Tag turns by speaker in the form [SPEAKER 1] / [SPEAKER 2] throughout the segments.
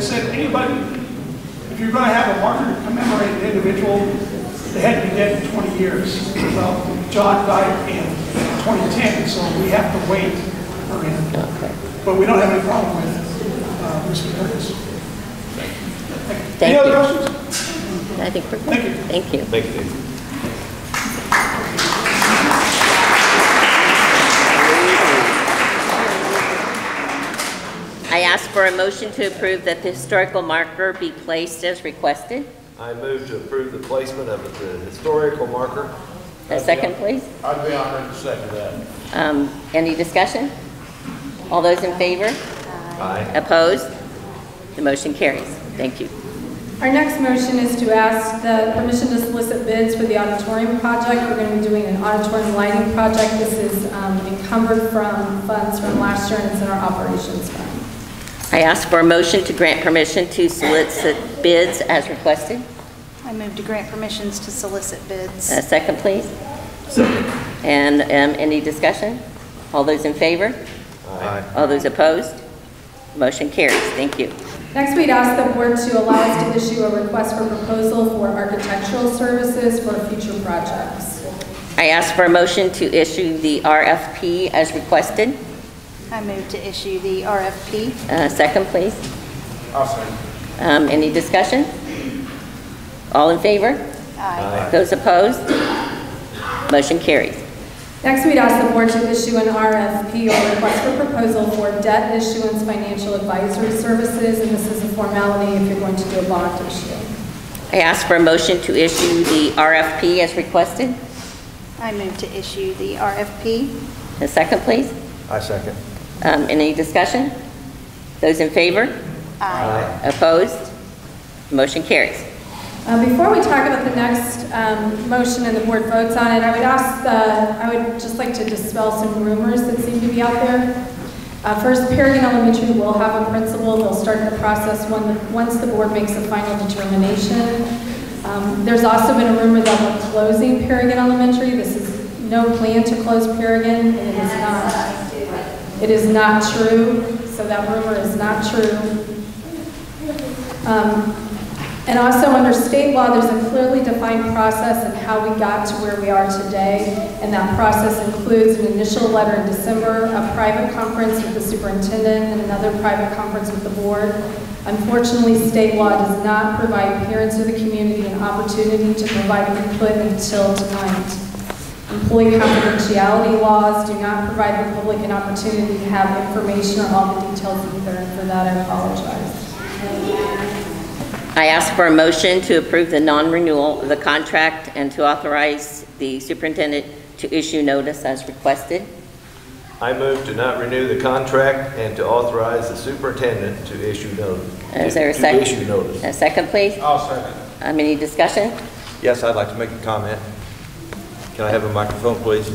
[SPEAKER 1] said, anybody, if you're gonna have a marker to commemorate an individual, they had to be dead in 20 years. Well, John died in 2010, so we have to wait for him. But we don't have any problem with uh, Mr. Curtis.
[SPEAKER 2] Thank
[SPEAKER 1] Any other
[SPEAKER 2] you.
[SPEAKER 1] questions?
[SPEAKER 2] I think we're
[SPEAKER 1] Thank you.
[SPEAKER 2] good. Thank you.
[SPEAKER 3] Thank you, Dave.
[SPEAKER 2] I ask for a motion to approve that the historical marker be placed as requested.
[SPEAKER 3] I move to approve the placement of the historical marker.
[SPEAKER 2] A second, please.
[SPEAKER 4] I'd be honored to second that.
[SPEAKER 2] Um, Any discussion? All those in favor?
[SPEAKER 3] Aye.
[SPEAKER 2] Opposed? The motion carries. Thank you.
[SPEAKER 5] Our next motion is to ask the permission to solicit bids for the auditorium project. We're going to be doing an auditorium lighting project. This is um, encumbered from funds from last year, and it's in our operations fund.
[SPEAKER 2] I ask for a motion to grant permission to solicit bids as requested.
[SPEAKER 6] I move to grant permissions to solicit bids.
[SPEAKER 2] A second, please. And um, any discussion? All those in favor?
[SPEAKER 3] Aye.
[SPEAKER 2] All those opposed? Motion carries. Thank you.
[SPEAKER 5] Next, we'd ask the board to allow us to issue a request for proposal for architectural services for future projects.
[SPEAKER 2] I ask for a motion to issue the RFP as requested.
[SPEAKER 6] I move to issue the RFP.
[SPEAKER 2] Uh, Second, please.
[SPEAKER 4] I'll second.
[SPEAKER 2] Um, Any discussion? All in favor?
[SPEAKER 6] Aye.
[SPEAKER 2] Those opposed? Motion carries.
[SPEAKER 5] Next, we'd ask the board to issue an RFP or request for proposal for debt issuance financial advisory services, and this is a formality if you're going to do a bond issue.
[SPEAKER 2] I ask for a motion to issue the RFP as requested.
[SPEAKER 6] I move to issue the RFP.
[SPEAKER 2] A second, please.
[SPEAKER 3] I second.
[SPEAKER 2] Um, Any discussion? Those in favor?
[SPEAKER 3] Aye.
[SPEAKER 2] Opposed? Motion carries.
[SPEAKER 5] Uh, Before we talk about the next um, motion and the board votes on it, I would ask, uh, I would just like to dispel some rumors that seem to be out there. Uh, First, Perrigan Elementary will have a principal. They'll start the process when- once the board makes a final determination. Um, There's also been a rumor that we're closing Perrigan Elementary. This is no plan to close Perrigan, and it is not. It is not true, so that rumor is not true. Um, And also, under state law, there's a clearly defined process in how we got to where we are today, and that process includes an initial letter in December, a private conference with the superintendent, and another private conference with the board. Unfortunately, state law does not provide parents or the community an opportunity to provide input until tonight. Employee confidentiality laws do not provide the public an opportunity to have information or all the details either, and for that, I apologize.
[SPEAKER 2] I ask for a motion to approve the non-renewal of the contract and to authorize the superintendent to issue notice as requested.
[SPEAKER 3] I move to not renew the contract and to authorize the superintendent to issue notice.
[SPEAKER 2] Is there a
[SPEAKER 3] to-
[SPEAKER 2] second?
[SPEAKER 3] To issue notice.
[SPEAKER 2] A second, please.
[SPEAKER 4] I'll second.
[SPEAKER 2] Um, Any discussion?
[SPEAKER 7] Yes, I'd like to make a comment. Can I have a microphone, please?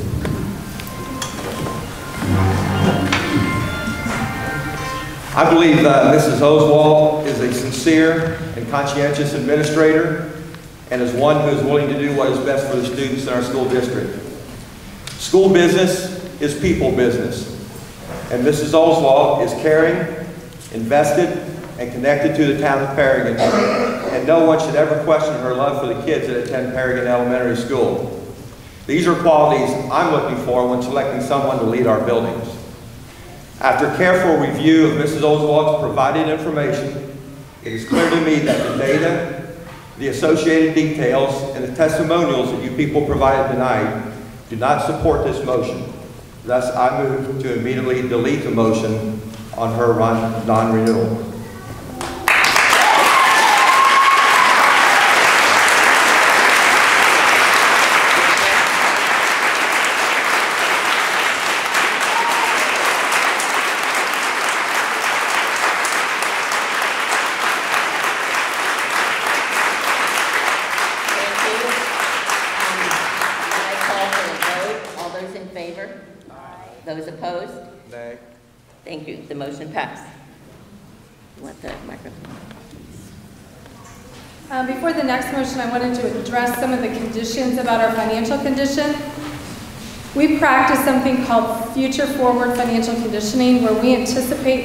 [SPEAKER 7] I believe uh, Mrs. Oswald is a sincere and conscientious administrator and is one who is willing to do what is best for the students in our school district. School business is people business, and Mrs. Oswald is caring, invested, and connected to the town of Perrigan, and no one should ever question her love for the kids that attend Perrigan Elementary School. These are qualities I'm looking for when selecting someone to lead our buildings. After careful review of Mrs. Oswald's provided information, it is clear to me that the data, the associated details, and the testimonials that you people provided tonight do not support this motion. Thus, I move to immediately delete the motion on her run- non-renewal.
[SPEAKER 2] Thank you. I call for a vote. All those in favor? Those opposed?
[SPEAKER 7] Nay.
[SPEAKER 2] Thank you. The motion passed. Want the microphone?
[SPEAKER 5] Uh, Before the next motion, I wanted to address some of the conditions about our financial condition. We practice something called future forward financial conditioning, where we anticipate